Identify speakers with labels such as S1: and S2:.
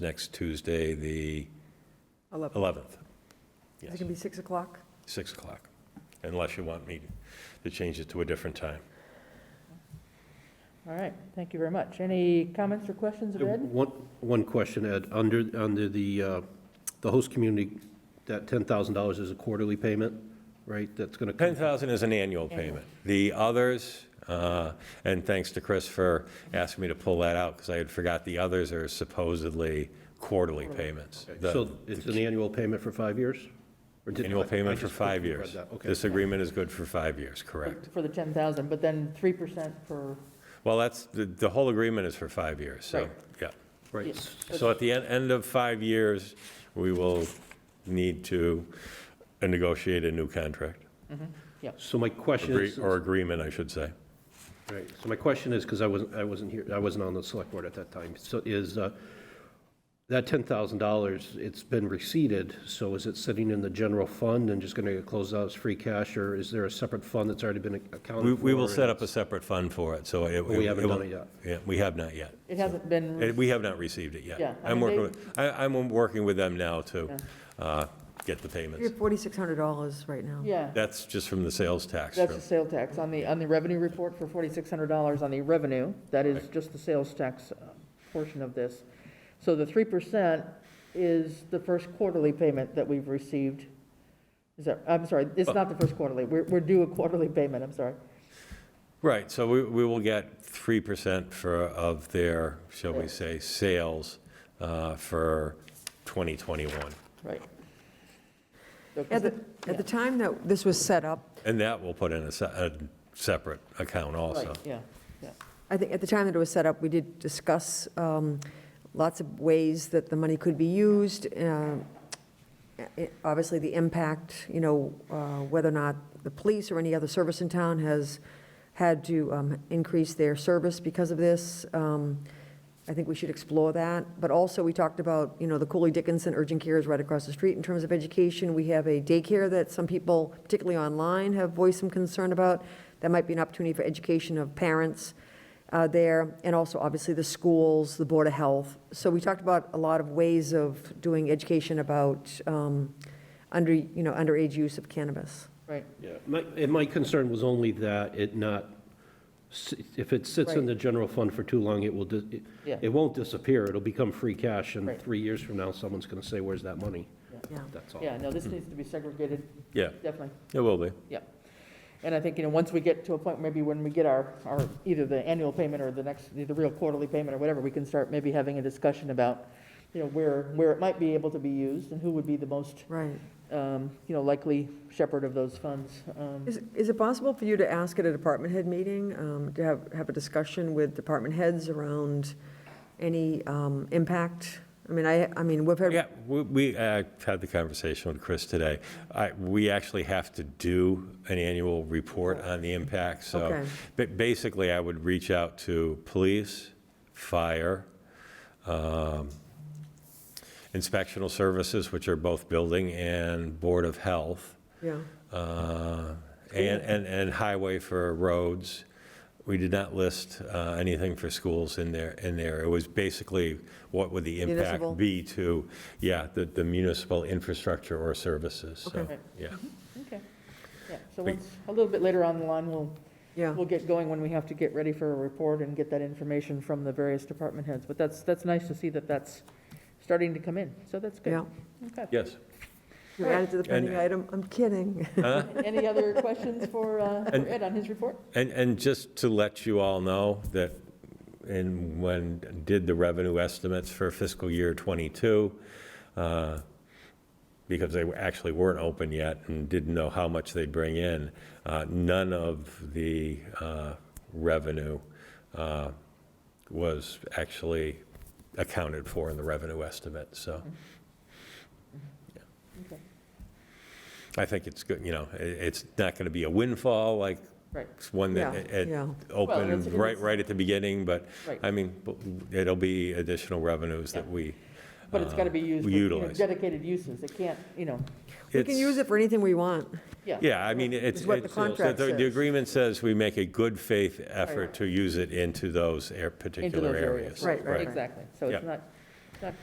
S1: next Tuesday, the
S2: 11.
S1: 11th,
S2: Is it going to be 6 o'clock?
S1: 6 o'clock, unless you want me to change it to a different time.
S3: All right, thank you very much. Any comments or questions of Ed?
S4: Uh, One, one question, Ed. Under, under the, uh, the host community, that $10,000 is a quarterly payment, right? That's going to,
S1: 10,000 is an annual payment. The others, uh, and thanks to Chris for asking me to pull that out, because I had forgot, the others are supposedly quarterly payments. The-
S4: so it's an annual payment for five years? Or did-
S1: Annual
S4: I- I
S1: payment for
S4: just
S1: five
S4: quickly read
S1: years.
S4: that. Okay.
S1: This agreement is good for five years, correct.
S3: For the 10,000, but then 3% for,
S1: Well, that's, the, the whole agreement is for five years, so,
S3: Right.
S1: yeah.
S4: Right.
S1: So at the end, end of five years, we will need to negotiate a new contract,
S4: So my question
S1: Agree-
S4: is,
S1: or agreement, I should say.
S4: right, so my question is, because I wasn't, I wasn't here, I wasn't on the select board at that time. So is, uh, that $10,000, it's been receded, so is it sitting in the general fund and just going to close out as free cash? Or is there a separate fund that's already been accounted
S1: We,
S4: for?
S1: we will set
S4: and-
S1: up a separate fund for it, so it.
S4: We haven't
S1: it will-
S4: done it yet.
S1: Yeah, we have not yet.
S3: it hasn't
S1: Eh,
S3: been,
S1: We have not received it yet.
S3: Mm. Yeah, I
S1: I'm
S3: mean,
S1: working,
S3: they-
S1: with- I, I'm working with them now to uh, get the
S2: You're
S1: payments.
S2: at $4,600 right now.
S3: yeah,
S1: That's just from the sales tax.
S3: that's
S1: from-
S3: the sale tax. On the, on the revenue report for $4,600 on the revenue, that is just the sales tax uh, portion of this. So the 3% is the first quarterly payment that we've received. Is that, I'm sorry,
S1: Oh.
S3: it's not the first quarterly, we're, we're due a quarterly payment, I'm sorry.
S1: Right, so we, we will get 3% for, of their, shall we
S3: Sales.
S1: say, sales uh, for 2021.
S3: Right. So, 'cause
S2: At the,
S3: it-
S2: at the time that this was set up,
S1: And that will put in a, se- a separate account also.
S3: Right, yeah, yeah.
S2: I think, at the time that it was set up, we did discuss um, lots of ways that the money could be used. uh, it- Obviously, the impact, you know, uh, whether or not the police or any other service in town has had to um, increase their service because of this. Um, I think we should explore that. But also, we talked about, you know, the Cooley Dickinson Urgent Care is right across the street in terms of education. We have a daycare that some people, particularly online, have voiced some concern about. That might be an opportunity for education of parents uh, there, and also, obviously, the schools, the Board of Health. So we talked about a lot of ways of doing education about um, under, you know, underage use of cannabis.
S3: Right,
S4: Yeah, my, and my concern was only that it not, s- if it sits in
S3: Right.
S4: the general fund for too long, it will, dis- it-
S3: Yeah.
S4: it won't disappear, it'll become free cash, and
S3: Right.
S4: three years from now, someone's gonna say, where's that money?
S2: Yeah.
S4: That's
S1: Oh.
S4: all.
S3: yeah, no, this needs to be segregated,
S1: Yeah,
S3: definitely,
S1: it will be.
S3: yeah. And I think, you know, once we get to a point, maybe when we get our, our, either the annual payment or the next, the real quarterly payment or whatever, we can start maybe having a discussion about, you know, where, where it might be able to be used and who would be the most,
S2: Right.
S3: um, you know, likely shepherd of those funds. um,
S2: Is, is it possible for you to ask at a department head meeting, um, to have, have a discussion with department heads around any um, impact? I mean, I, I mean, we've
S1: Yeah,
S2: had,
S1: we- we uh, had the conversation with Chris today. I- We actually have to do an annual report on the impact, so.
S2: Okay.
S1: But basically, I would reach out to police, fire, um, inspectional services, which are both building, and Board of Health,
S2: yeah,
S1: uh, and, and and highway for roads. We did not list uh, anything for schools in there, in there. It was basically, what would the
S2: Municipal.
S1: impact be to, yeah, the the municipal infrastructure or services, so,
S3: Okay.
S1: yeah.
S3: Okay, yeah, so
S1: Wait.
S3: once, a little bit later on the line, we'll,
S2: yeah.
S3: we'll get going when we have to get ready for a report and get that information from the various department heads. But that's, that's nice to see that that's starting to come in, so that's good.
S2: Yeah.
S3: Okay.
S1: Yes.
S2: You added to the pending
S1: And-
S2: item, I'm kidding.
S1: Huh?
S3: Any other questions for uh, for
S1: And-
S3: Ed on his report?
S1: And, and just to let you all know that, in when did the revenue estimates for fiscal year '22, uh, because they were- actually weren't open yet and didn't know how much they'd bring in, uh, none of the uh, revenue uh, was actually accounted for in the revenue estimate, so. Mm-hmm.
S3: Okay.
S1: I think it's good, you know, i- it's not going to be a windfall like
S3: Right.
S1: one that
S2: Yeah,
S1: it
S2: yeah.
S3: Well, it's-
S1: opened right,
S3: it's-
S1: right at the beginning, but,
S3: Right.
S1: I mean, b- it'll be additional revenues that
S3: Yeah.
S1: we.
S3: But it's got to be
S1: uh,
S3: used for, you know,
S1: Utilize.
S3: dedicated uses. It can't, you know,
S2: We can
S1: It's-
S2: use it for anything we want.
S3: yeah.
S1: Yeah, I mean, it's.
S2: It's what the
S1: it's-
S2: contract
S1: the- The
S2: says. Oh,
S1: agreement says we make a good faith
S3: Right.
S1: effort to use it into those air-
S3: Into those
S1: particular
S3: areas.
S1: areas.
S2: Right, right, right.
S3: Exactly. So it's
S1: Yeah.
S3: not,